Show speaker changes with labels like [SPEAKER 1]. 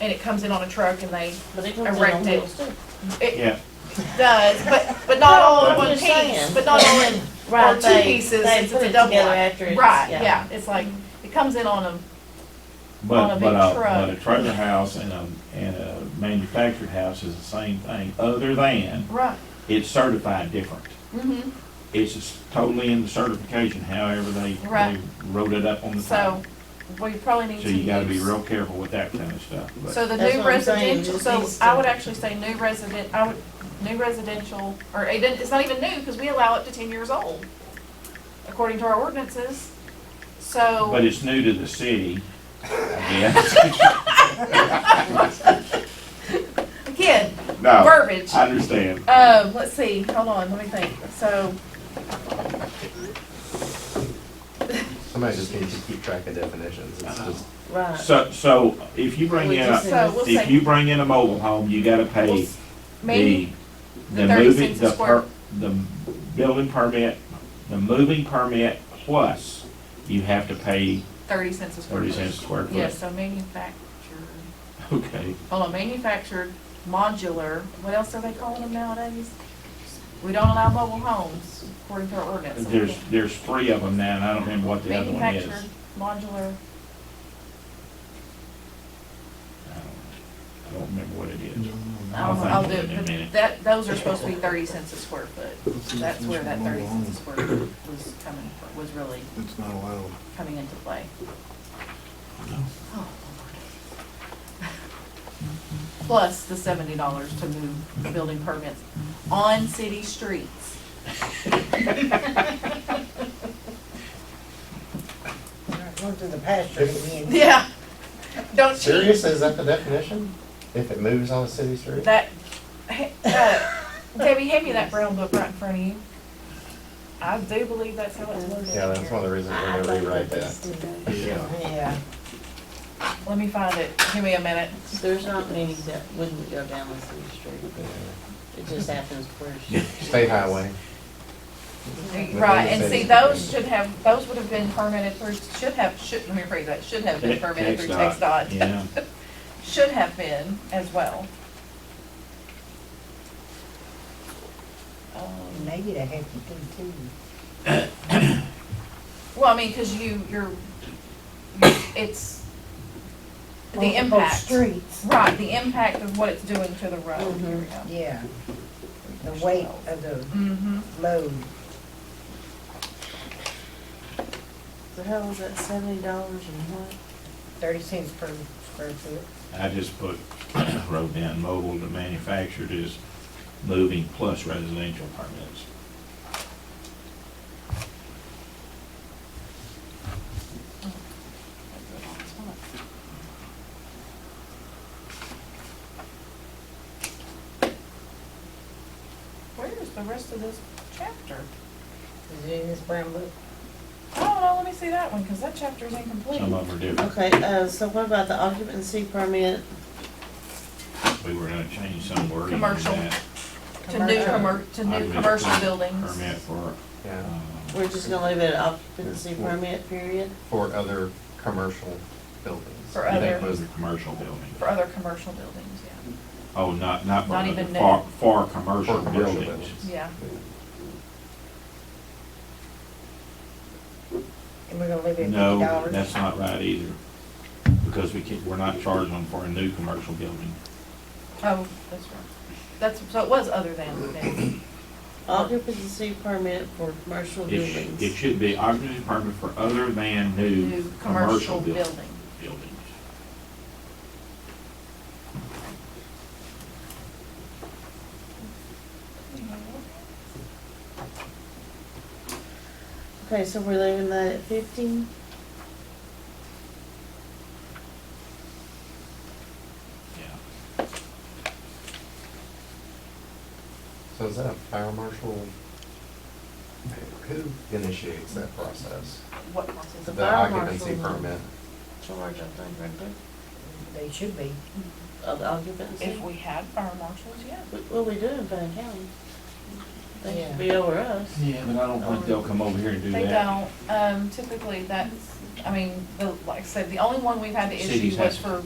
[SPEAKER 1] and it comes in on a truck and they,
[SPEAKER 2] But it comes in on
[SPEAKER 1] Erect it.
[SPEAKER 2] wheels too.
[SPEAKER 1] it
[SPEAKER 3] Yeah,
[SPEAKER 1] does, but, but not
[SPEAKER 2] No,
[SPEAKER 1] all in
[SPEAKER 3] I'm
[SPEAKER 1] one
[SPEAKER 2] just
[SPEAKER 1] piece,
[SPEAKER 2] saying.
[SPEAKER 1] but not all in,
[SPEAKER 2] Right,
[SPEAKER 1] two
[SPEAKER 2] they-
[SPEAKER 1] pieces,
[SPEAKER 2] they
[SPEAKER 1] it's
[SPEAKER 2] put
[SPEAKER 1] a
[SPEAKER 2] it
[SPEAKER 1] double
[SPEAKER 2] together
[SPEAKER 1] wide.
[SPEAKER 2] after it's-
[SPEAKER 1] right, yeah, it's like, it comes in on a, On
[SPEAKER 3] but,
[SPEAKER 1] a
[SPEAKER 3] but
[SPEAKER 1] big
[SPEAKER 3] a,
[SPEAKER 1] truck.
[SPEAKER 3] but a trailer house and a, and a manufactured house is the same thing, other than
[SPEAKER 1] right,
[SPEAKER 3] it's certified different.
[SPEAKER 1] mm-hmm.
[SPEAKER 3] It's just totally in the certification, however they, they
[SPEAKER 1] Right.
[SPEAKER 3] wrote it up on the
[SPEAKER 1] So,
[SPEAKER 3] top.
[SPEAKER 1] we probably need to
[SPEAKER 3] So
[SPEAKER 1] use.
[SPEAKER 3] you gotta be real careful with that kind of stuff, but,
[SPEAKER 1] So the
[SPEAKER 2] That's
[SPEAKER 1] new
[SPEAKER 2] what I'm saying,
[SPEAKER 1] residential,
[SPEAKER 2] just
[SPEAKER 1] so
[SPEAKER 2] these
[SPEAKER 1] I
[SPEAKER 2] two.
[SPEAKER 1] would actually say new resident, I would, new residential, or it didn't, it's not even new, because we allow up to ten years old, according to our ordinances.
[SPEAKER 3] but
[SPEAKER 1] So,
[SPEAKER 3] it's new to the city, I guess.
[SPEAKER 1] again,
[SPEAKER 3] No,
[SPEAKER 1] verbiage.
[SPEAKER 3] Oh. I understand.
[SPEAKER 1] Um, let's see, hold on, let me think, so,
[SPEAKER 4] Somebody just needs to keep track of definitions, it's just.
[SPEAKER 2] Right.
[SPEAKER 3] So, so if you bring
[SPEAKER 2] We
[SPEAKER 3] in,
[SPEAKER 2] just
[SPEAKER 3] a
[SPEAKER 2] said-
[SPEAKER 1] so we'll
[SPEAKER 3] if
[SPEAKER 1] say,
[SPEAKER 3] you bring in a mobile home, you gotta
[SPEAKER 1] we'll
[SPEAKER 3] pay
[SPEAKER 1] s-
[SPEAKER 3] the,
[SPEAKER 1] maybe,
[SPEAKER 3] the
[SPEAKER 1] the 30
[SPEAKER 3] moving,
[SPEAKER 1] cents a
[SPEAKER 3] the
[SPEAKER 1] square.
[SPEAKER 3] per, the building permit, the moving permit plus you have to pay
[SPEAKER 1] thirty cents a square
[SPEAKER 3] thirty
[SPEAKER 1] foot.
[SPEAKER 3] cents a square foot.
[SPEAKER 1] Yeah, so manufactured,
[SPEAKER 3] Okay,
[SPEAKER 1] hold on, manufactured, modular, what else are they calling them nowadays? We don't allow mobile homes, according to our ordinance. so we
[SPEAKER 3] there's,
[SPEAKER 1] can't-
[SPEAKER 3] there's three of them now and I don't remember what the other one is.
[SPEAKER 1] Manufactured, modular,
[SPEAKER 3] I don't- I don't remember what it
[SPEAKER 1] I
[SPEAKER 3] is.
[SPEAKER 1] don't know,
[SPEAKER 3] Mm-hmm. I'll
[SPEAKER 1] I'll do,
[SPEAKER 3] think of it in a
[SPEAKER 1] it,
[SPEAKER 3] minute.
[SPEAKER 1] but that, those are supposed to be thirty cents a square foot. So that's where that thirty cents a square foot was coming, fr- was really
[SPEAKER 5] It's not allowed.
[SPEAKER 1] coming into play. Oh, Lord. Plus the seventy dollars to move building permits on city streets.
[SPEAKER 6] Going through the pasture again.
[SPEAKER 1] Yeah, don't cheat.
[SPEAKER 4] Serious, is that the definition? If it moves on a city street?
[SPEAKER 1] That, hey, uh, Debbie, hand me that brown book right in front of you. I do believe that's how it's worded.
[SPEAKER 4] Yeah, that's one of the reasons we're gonna rewrite that.
[SPEAKER 5] Yeah.
[SPEAKER 6] Yeah.
[SPEAKER 1] Let me find it. Give me a minute.
[SPEAKER 2] There's not many that wouldn't go down the city street.
[SPEAKER 4] Yeah.
[SPEAKER 2] It just happens where.
[SPEAKER 4] State highway.
[SPEAKER 1] Right, and see, those should have, those would have been permitted through, should have, should, let me rephrase that, should have been permitted through text dot.
[SPEAKER 3] Yeah,
[SPEAKER 1] Should have been as well. Um,
[SPEAKER 6] Maybe they have to do too.
[SPEAKER 1] Well, I mean, because you, you're, you- it's the
[SPEAKER 6] Multiple
[SPEAKER 1] impact.
[SPEAKER 6] Streets,
[SPEAKER 1] Right, the impact of what it's doing to the road. Here we go.
[SPEAKER 6] yeah. The weight of the
[SPEAKER 1] Mm-hmm.
[SPEAKER 6] load.
[SPEAKER 2] The hell was that, seventy dollars and what?
[SPEAKER 6] thirty cents per square foot.
[SPEAKER 3] I just put, wrote down mobile to manufactured is moving plus residential permits.
[SPEAKER 1] Where is the rest of this chapter?
[SPEAKER 6] Is it in this brown book?
[SPEAKER 1] Oh, no, let me see that one, because that chapter is incomplete.
[SPEAKER 3] Some of them are different.
[SPEAKER 2] Okay, uh, so what about the occupancy permit?
[SPEAKER 3] We were gonna change some wording on
[SPEAKER 1] Commercial.
[SPEAKER 3] that.
[SPEAKER 1] To new commer, to
[SPEAKER 3] I
[SPEAKER 1] new
[SPEAKER 3] mean,
[SPEAKER 1] commercial
[SPEAKER 3] per-
[SPEAKER 1] buildings.
[SPEAKER 3] Permit for,
[SPEAKER 4] Yeah,
[SPEAKER 3] um,
[SPEAKER 2] We're just gonna leave it at occupancy permit period?
[SPEAKER 4] for other commercial buildings.
[SPEAKER 1] For
[SPEAKER 4] I think
[SPEAKER 1] other-
[SPEAKER 4] most-
[SPEAKER 3] was the commercial building.
[SPEAKER 1] For other commercial buildings, yeah,
[SPEAKER 3] Oh, not, not for,
[SPEAKER 1] Not
[SPEAKER 3] other-
[SPEAKER 1] even
[SPEAKER 3] for, for commercial
[SPEAKER 4] For commercial
[SPEAKER 3] buildings.
[SPEAKER 1] yeah.
[SPEAKER 6] And we're gonna leave it at fifty
[SPEAKER 3] No,
[SPEAKER 6] dollars?
[SPEAKER 3] that's not right either, because we can, we're not charging them for a new commercial building.
[SPEAKER 1] Oh, that's right. That's, so it was other than, than-
[SPEAKER 2] Occupancy permit for commercial
[SPEAKER 3] It, sh- it
[SPEAKER 2] buildings.
[SPEAKER 3] should be occupancy permit for other than new
[SPEAKER 1] new commercial
[SPEAKER 3] commercial buil-
[SPEAKER 1] building.
[SPEAKER 3] buildings.
[SPEAKER 2] Okay, so we're leaving that at fifty?
[SPEAKER 3] Yeah,
[SPEAKER 4] So is that a fire marshal? Who initiates that process?
[SPEAKER 1] What process?
[SPEAKER 2] The
[SPEAKER 4] The
[SPEAKER 2] fire
[SPEAKER 4] occupancy
[SPEAKER 2] marshal.
[SPEAKER 4] permit?
[SPEAKER 2] Charge, I think, right there,
[SPEAKER 6] They should be.
[SPEAKER 2] of the occupancy.
[SPEAKER 1] If we had fire marshals, yeah.
[SPEAKER 2] Well, we do in Fannin County. They
[SPEAKER 6] Yeah.
[SPEAKER 2] should be over us.
[SPEAKER 3] Yeah, but I don't think they'll come over here and do
[SPEAKER 1] They
[SPEAKER 3] that.
[SPEAKER 1] don't, um, typically that's, I mean, the, like I said, the only one we've had to issue
[SPEAKER 3] Cities
[SPEAKER 1] was
[SPEAKER 3] has-
[SPEAKER 1] for